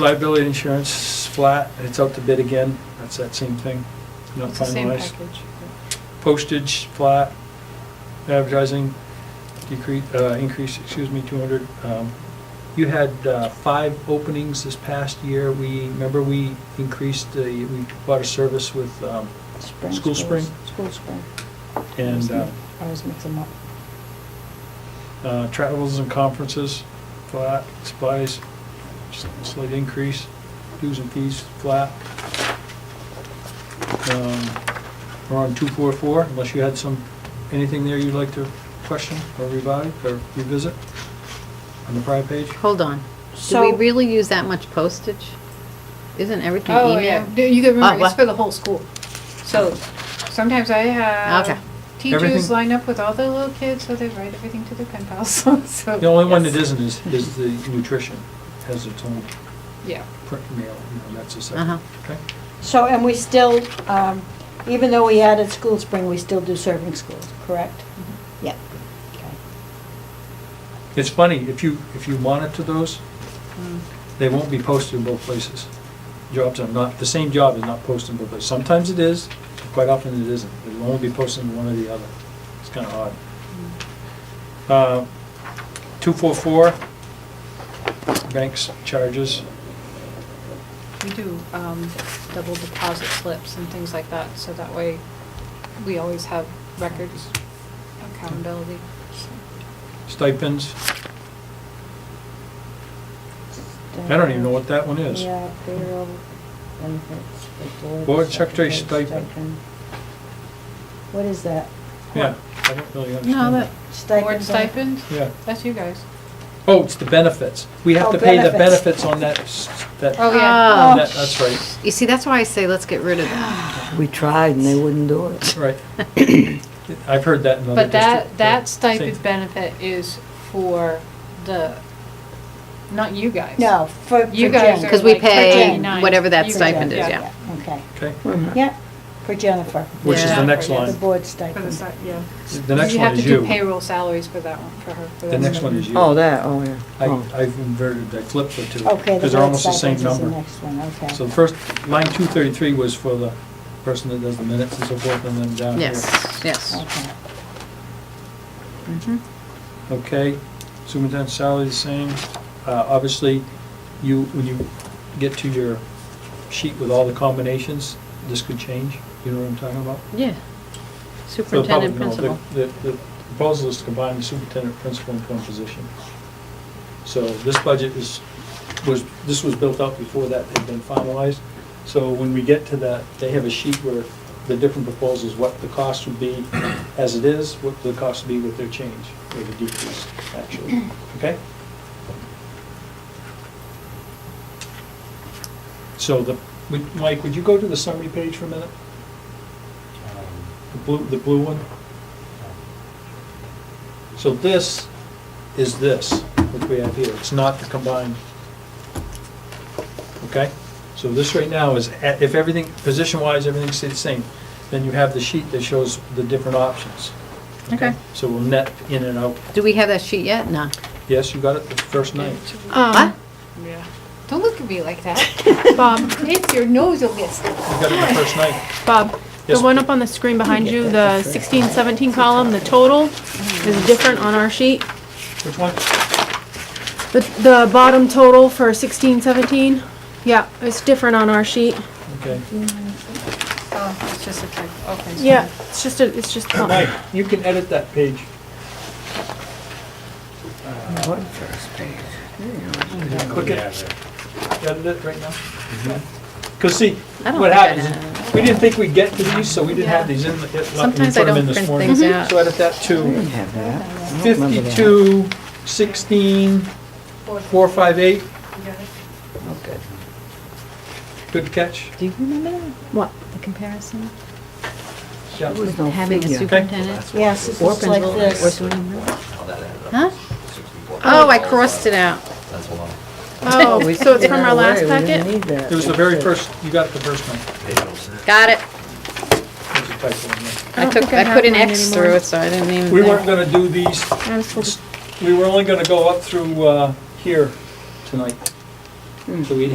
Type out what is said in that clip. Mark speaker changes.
Speaker 1: liability insurance, flat, it's out to bid again, that's that same thing, not
Speaker 2: It's the same
Speaker 1: finalized.
Speaker 2: package.
Speaker 1: Postage, flat, advertising, decrease, uh, increase, excuse me, two hundred. Um, You had, uh, five openings this past year, we, remember we increased the, we bought a service with, um,
Speaker 3: Spring
Speaker 1: School
Speaker 3: schools.
Speaker 1: spring?
Speaker 3: School spring.
Speaker 1: and, uh,
Speaker 3: I always mix them up.
Speaker 1: uh, travels and conferences, flat, supplies, s- slight increase, dues and fees, flat. Um, We're on two four four, unless you had some, anything there you'd like to question or revise or revisit on the prior page?
Speaker 4: Hold on. Do we
Speaker 3: So,
Speaker 4: really use that much postage? Isn't everything
Speaker 2: Oh, yeah,
Speaker 4: email?
Speaker 2: Do you can
Speaker 4: Oh,
Speaker 2: remember, it's
Speaker 4: what?
Speaker 2: for the whole school. So sometimes I
Speaker 4: Okay.
Speaker 2: have teachers
Speaker 1: Everything-
Speaker 2: line up with all the little kids, so they write everything to their pen pals, so.
Speaker 1: The only one
Speaker 2: Oh, yes.
Speaker 1: that isn't is, is the nutrition, has its own
Speaker 2: Yeah.
Speaker 1: print mail, you know, that's a
Speaker 4: Uh-huh.
Speaker 1: separate, okay?
Speaker 3: so, and we still, um, even though we added school spring, we still do serving schools, correct?
Speaker 4: Mm-hmm.
Speaker 3: Yep.
Speaker 1: It's funny, if you, if you monitor those,
Speaker 4: Hmm.
Speaker 1: they won't be posted in both places. Jobs are not, the same job is not posted in both places. Sometimes it is, quite often it isn't. It'll only be posted in one or the other. It's kind of odd. Two four four, banks charges,
Speaker 2: We do um, double deposit slips and things like that, so that way we always have records, accountability.
Speaker 1: stipends. I don't even know what that one is.
Speaker 3: Yeah, payroll, benefits, the board.
Speaker 1: Board secretary stipend.
Speaker 3: What is that?
Speaker 1: Yeah, I don't really
Speaker 4: No,
Speaker 1: understand.
Speaker 4: that,
Speaker 3: Stipend.
Speaker 2: Board stipend,
Speaker 1: Yeah.
Speaker 2: that's you guys.
Speaker 1: Oh, it's the benefits. We have
Speaker 3: Oh,
Speaker 1: to pay the
Speaker 3: benefits.
Speaker 1: benefits on that, s- that,
Speaker 2: Oh,
Speaker 4: Oh.
Speaker 2: yeah.
Speaker 1: that- that's right,
Speaker 4: you see, that's why I say let's get rid of that.
Speaker 5: We tried and they wouldn't do it.
Speaker 1: right. I've heard that in other
Speaker 2: But
Speaker 1: districts.
Speaker 2: that, that stipend
Speaker 1: Same.
Speaker 2: benefit is for the, not you guys.
Speaker 3: No, for, for
Speaker 2: You guys
Speaker 3: Jen.
Speaker 2: are
Speaker 4: Because we
Speaker 2: like
Speaker 4: pay
Speaker 2: 39.
Speaker 4: whatever that
Speaker 2: You guys-
Speaker 4: stipend is,
Speaker 2: yeah.
Speaker 4: yeah.
Speaker 3: Okay,
Speaker 1: Okay.
Speaker 5: Mm-hmm.
Speaker 3: yeah, for Jennifer,
Speaker 1: Which is
Speaker 2: Yeah.
Speaker 1: the next
Speaker 2: Yeah.
Speaker 3: the
Speaker 1: line.
Speaker 3: board
Speaker 2: For the
Speaker 3: stipend.
Speaker 2: sti- yeah.
Speaker 1: The next one is
Speaker 2: You have to do
Speaker 1: you.
Speaker 2: payroll salaries for that one, for her. for
Speaker 1: The
Speaker 2: that
Speaker 1: next one is you.
Speaker 5: Oh, that, oh, yeah.
Speaker 1: I,
Speaker 5: Oh.
Speaker 1: I've inverted, I flipped the two.
Speaker 3: Okay, the
Speaker 1: Because they're
Speaker 3: board
Speaker 1: almost the
Speaker 3: stipend
Speaker 1: same
Speaker 3: is the
Speaker 1: number.
Speaker 3: next one, okay.
Speaker 1: So the first, line two thirty-three was for the person that does the minutes and so forth, and then down here.
Speaker 4: Yes, yes.
Speaker 3: Okay.
Speaker 4: Mhm.
Speaker 1: Okay, superintendent's salary the same. Uh, obviously, you, when you get to your sheet with all the combinations, this could change. You know what I'm talking about?
Speaker 4: Yeah.
Speaker 1: For the public,
Speaker 4: Superintendent,
Speaker 1: no, the-
Speaker 4: principal.
Speaker 1: The, the proposal is to combine the superintendent, principal, and one position. So this budget is, was, this was built up before that had been finalized. So when we get to that, they have a sheet where the different proposals, what the cost would be as it is, what the cost would be with their change, or the decrease, actually, okay? So the, would- Mike, would you go to the summary page for a minute? The blue, the blue one? So this is this, which we have here, it's not the combined. Okay? So this right now is, a- if everything, position-wise, everything stays the same, then you have the sheet that shows the different options.
Speaker 4: Okay.
Speaker 1: So we'll net in and out.
Speaker 4: Do we have that sheet yet? No.
Speaker 1: Yes, you got it the first night.
Speaker 6: Um,
Speaker 4: What?
Speaker 2: Yeah. Um, Don't look at me like that. Bob, it's your nose will get stuck.
Speaker 1: You got it the first night.
Speaker 6: Bob, the
Speaker 1: Yes.
Speaker 6: one up on the screen behind you, the 16, 17 column, the total is different on our sheet.
Speaker 1: Which one?
Speaker 6: The, the bottom total for 16, 17, yeah, it's different on our sheet.
Speaker 1: Okay.
Speaker 2: Oh, it's just a typo, okay. so-
Speaker 6: Yeah, it's just a, it's just,
Speaker 1: Mike, you can edit that page.
Speaker 5: What first page?
Speaker 1: Click it. Edit it right now. Because see,
Speaker 4: I don't
Speaker 1: what
Speaker 4: think I
Speaker 1: happens,
Speaker 4: know.
Speaker 1: is we didn't think we'd get to these, so we didn't have
Speaker 2: Yeah.
Speaker 1: these in. the- it- we
Speaker 4: Sometimes I
Speaker 1: put 'em in
Speaker 4: don't
Speaker 1: this
Speaker 4: print
Speaker 1: morning.
Speaker 4: things out.
Speaker 1: So edit that to
Speaker 5: Didn't have that. I don't remember that.
Speaker 1: 52, 16, 458.
Speaker 5: Oh, good.
Speaker 1: Good catch.
Speaker 3: Do you remember that?
Speaker 6: what?
Speaker 3: the comparison?
Speaker 1: Yeah.
Speaker 5: There was no
Speaker 4: Having a
Speaker 5: figure.
Speaker 4: superintendent?
Speaker 3: Yes, it's
Speaker 4: or
Speaker 3: just like
Speaker 4: principal
Speaker 3: this.
Speaker 4: or superintendent.
Speaker 7: How that ended up.
Speaker 4: Huh?
Speaker 7: 64.
Speaker 4: Oh, I crossed it out.
Speaker 7: That's a lot.
Speaker 6: Oh,
Speaker 5: We
Speaker 6: so it's
Speaker 5: took
Speaker 6: from
Speaker 5: that
Speaker 6: our last
Speaker 5: away. We didn't
Speaker 6: packet?
Speaker 5: need that.
Speaker 1: It was the very first, you got it the first one.
Speaker 4: Got it.
Speaker 1: There's a typo in there.
Speaker 4: I
Speaker 6: don't
Speaker 4: took,
Speaker 6: think I
Speaker 4: I put
Speaker 6: have
Speaker 4: an
Speaker 6: mine
Speaker 4: X
Speaker 6: anymore.
Speaker 4: through it, so I didn't even.
Speaker 1: We
Speaker 4: think.
Speaker 1: weren't going to do these,
Speaker 6: I was told-
Speaker 4: Hmm.
Speaker 1: we were only going to go up through uh, here tonight. So we